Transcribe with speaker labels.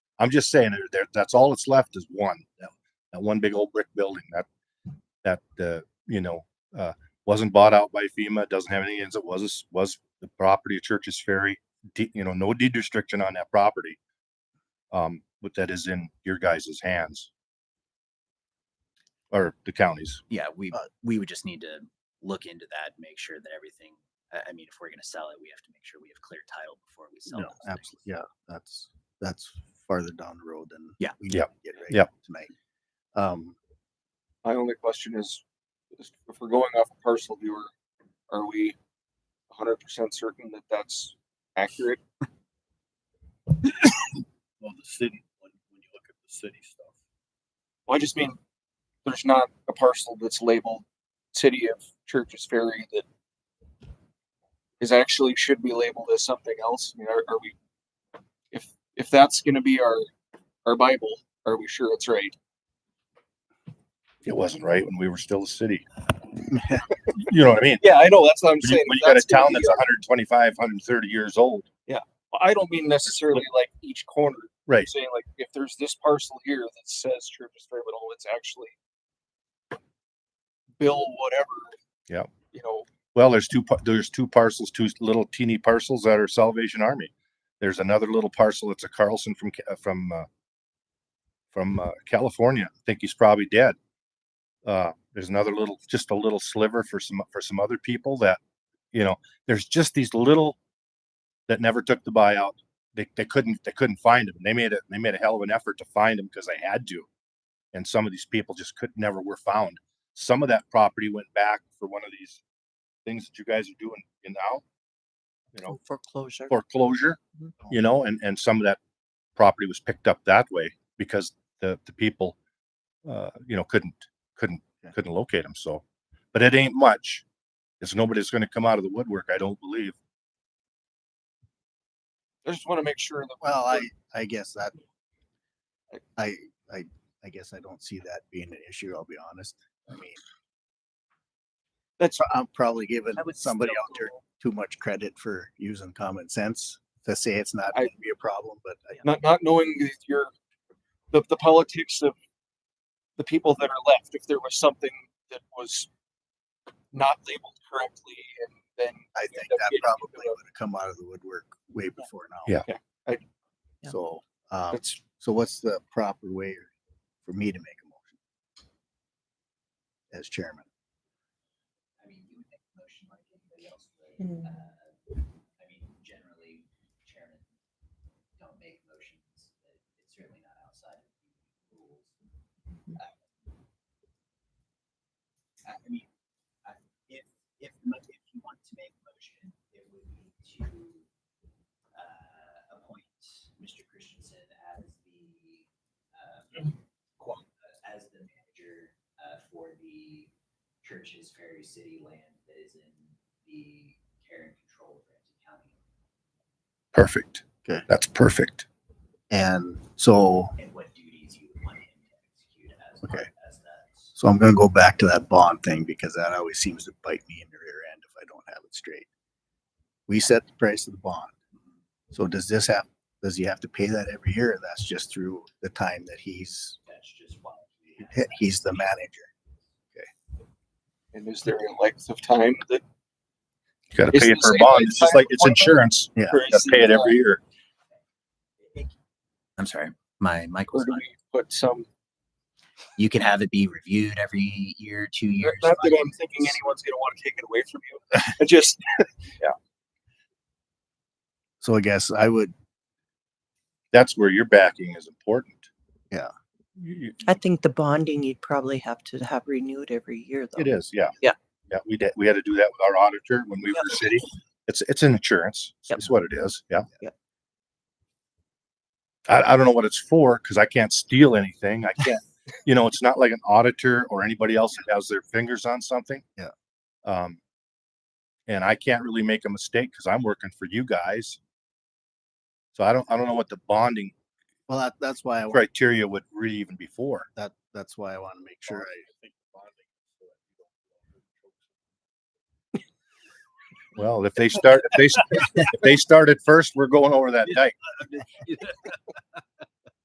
Speaker 1: I'm just saying there, there, that's all that's left is one, that, that one big old brick building that, that, uh, you know, uh, wasn't bought out by FEMA, doesn't have any, ends. it was, was the property of Church's Ferry, de- you know, no deed restriction on that property. Um, but that is in your guys' hands. Or the county's.
Speaker 2: yeah, we, we would just need to look into that, make sure that everything, I, I mean, if we're gonna sell it, we have to make sure we have clear title before we sell.
Speaker 3: No,
Speaker 2: those things.
Speaker 3: absolutely. Yeah, that's, that's farther down the road than.
Speaker 2: Yeah.
Speaker 3: we
Speaker 1: Yep.
Speaker 3: need to Get right
Speaker 1: Yep.
Speaker 3: tonight. Um,
Speaker 4: My only question is, is if we're going off a parcel viewer, are we hundred percent certain that that's accurate?
Speaker 5: Well, the city, when, when you look at the city stuff.
Speaker 4: Well, I just mean, there's not a parcel that's labeled City of Church's Ferry that is actually should be labeled as something else. I mean, are, are we, if, if that's gonna be our, our Bible, are we sure it's right?
Speaker 1: It wasn't right when we were still a city. You know what I mean?
Speaker 4: Yeah, I know, that's what I'm
Speaker 1: When you-
Speaker 4: saying.
Speaker 1: when
Speaker 4: if
Speaker 1: you got a
Speaker 4: that's gonna
Speaker 1: town
Speaker 4: be
Speaker 1: that's
Speaker 4: our-
Speaker 1: 125, 130 years old.
Speaker 4: I don't mean necessarily like each corner,
Speaker 1: Right.
Speaker 4: saying like if there's this parcel here that says Church's Ferry, but all oh, it's actually Bill whatever.
Speaker 1: Yep.
Speaker 4: You know,
Speaker 1: Well, there's two, par- there's two parcels, two little teeny parcels that are Salvation Army. There's another little parcel that's a Carlson from, Ca- from, uh, from, uh, California. I think he's probably dead. Uh, there's another little, just a little sliver for some, for some other people that, you know, there's just these little that never took the buyout. They, they couldn't, they couldn't find them. They made it, they made a hell of an effort to find them because they had to. And some of these people just could, never were found. Some of that property went back for one of these things that you guys are doing in now, you know,
Speaker 6: Foreclosure.
Speaker 3: Mm-hmm.
Speaker 1: foreclosure, you know, and, and some of that property was picked up that way because the, the people, uh, you know, couldn't, couldn't,
Speaker 3: Yeah.
Speaker 1: couldn't locate them. So, but it ain't much. It's nobody's going to come out of the woodwork. I don't believe.
Speaker 4: I just want to make sure that
Speaker 3: well, I, I guess that, I, I, I guess I don't see that being an issue, I'll be honest. I mean,
Speaker 4: that's
Speaker 3: I'm probably giving
Speaker 2: I would
Speaker 3: somebody
Speaker 2: still
Speaker 3: out there
Speaker 2: go-
Speaker 3: too much credit for using common sense to say it's not
Speaker 4: I-
Speaker 3: gonna be a problem, but I,
Speaker 4: not not knowing that your the the politics of the people that are left. If there was something that was not labeled correctly, and then
Speaker 3: I
Speaker 4: you
Speaker 3: think
Speaker 4: end up
Speaker 3: that
Speaker 4: getting into
Speaker 3: probably
Speaker 4: a-
Speaker 3: would have come out of the woodwork way before now.
Speaker 1: Yeah.
Speaker 4: Yeah, I-
Speaker 6: Yeah.
Speaker 3: So, um,
Speaker 4: that's
Speaker 3: so what's the proper way for me to make a motion? As chairman,
Speaker 2: I mean, you would make a motion like anybody else would.
Speaker 6: Mm.
Speaker 2: Uh, I mean, generally, chairman don't make motions. but It's certainly not outside of the rules. Uh, I I mean, I- if, if, the mo- if you want to make a motion, it would be to uh, appoint Mr. Christensen as the, um, qua- as the manager uh, for the churches, ferry, city land that is in the care and control of Ramsey County.
Speaker 1: Perfect.
Speaker 3: Okay.
Speaker 1: That's perfect.
Speaker 3: and so,
Speaker 2: And what duties you would want him to execute as,
Speaker 3: Okay.
Speaker 2: as that.
Speaker 3: so I'm gonna go back to that bond thing because that always seems to bite me in the rear end if I don't have it straight. We set the price of the bond. So does this have, does he have to pay that every year? or That's just through the time that he's,
Speaker 2: That's just why. we have
Speaker 3: he-
Speaker 2: that.
Speaker 3: he's the manager.
Speaker 4: and is there a length of time that
Speaker 1: You got to
Speaker 4: It's
Speaker 1: pay it
Speaker 4: the
Speaker 1: for a
Speaker 4: same
Speaker 1: bond.
Speaker 4: like
Speaker 1: It's just
Speaker 4: fire
Speaker 1: like, it's
Speaker 4: department.
Speaker 1: insurance.
Speaker 3: Yeah.
Speaker 1: You got to pay it every year.
Speaker 2: I'm sorry, my mic
Speaker 4: or
Speaker 2: was
Speaker 4: do
Speaker 2: on.
Speaker 4: we put some?
Speaker 2: You can have it be reviewed every year, two years.
Speaker 4: Not
Speaker 2: five
Speaker 4: that I'm
Speaker 2: years.
Speaker 4: thinking anyone's going to want to take it away from you. I just
Speaker 3: So I guess I would,
Speaker 1: That's where your backing is important.
Speaker 3: Yeah.
Speaker 1: You- you-
Speaker 6: I think the bonding you'd probably have to have renewed every year though.
Speaker 1: It is, yeah.
Speaker 6: Yeah.
Speaker 1: Yeah, we did, we had to do that with our auditor when we were a city. It's, it's an insurance.
Speaker 6: Yep.
Speaker 1: It's what it is, yeah.
Speaker 6: Yep.
Speaker 1: I, I don't know what it's for, because I can't steal anything. I can't, you know, it's not like an auditor or anybody else that has their fingers on something.
Speaker 3: Yeah.
Speaker 1: Um, and I can't really make a mistake because I'm working for you guys. So I don't, I don't know what the bonding
Speaker 3: well, that, that's why I, wa-
Speaker 1: criteria would really even be for.
Speaker 3: that, that's why I want to make sure I
Speaker 6: Mm-hmm.
Speaker 1: Well, if they start, if they, s- if they started first, we're going over that dike.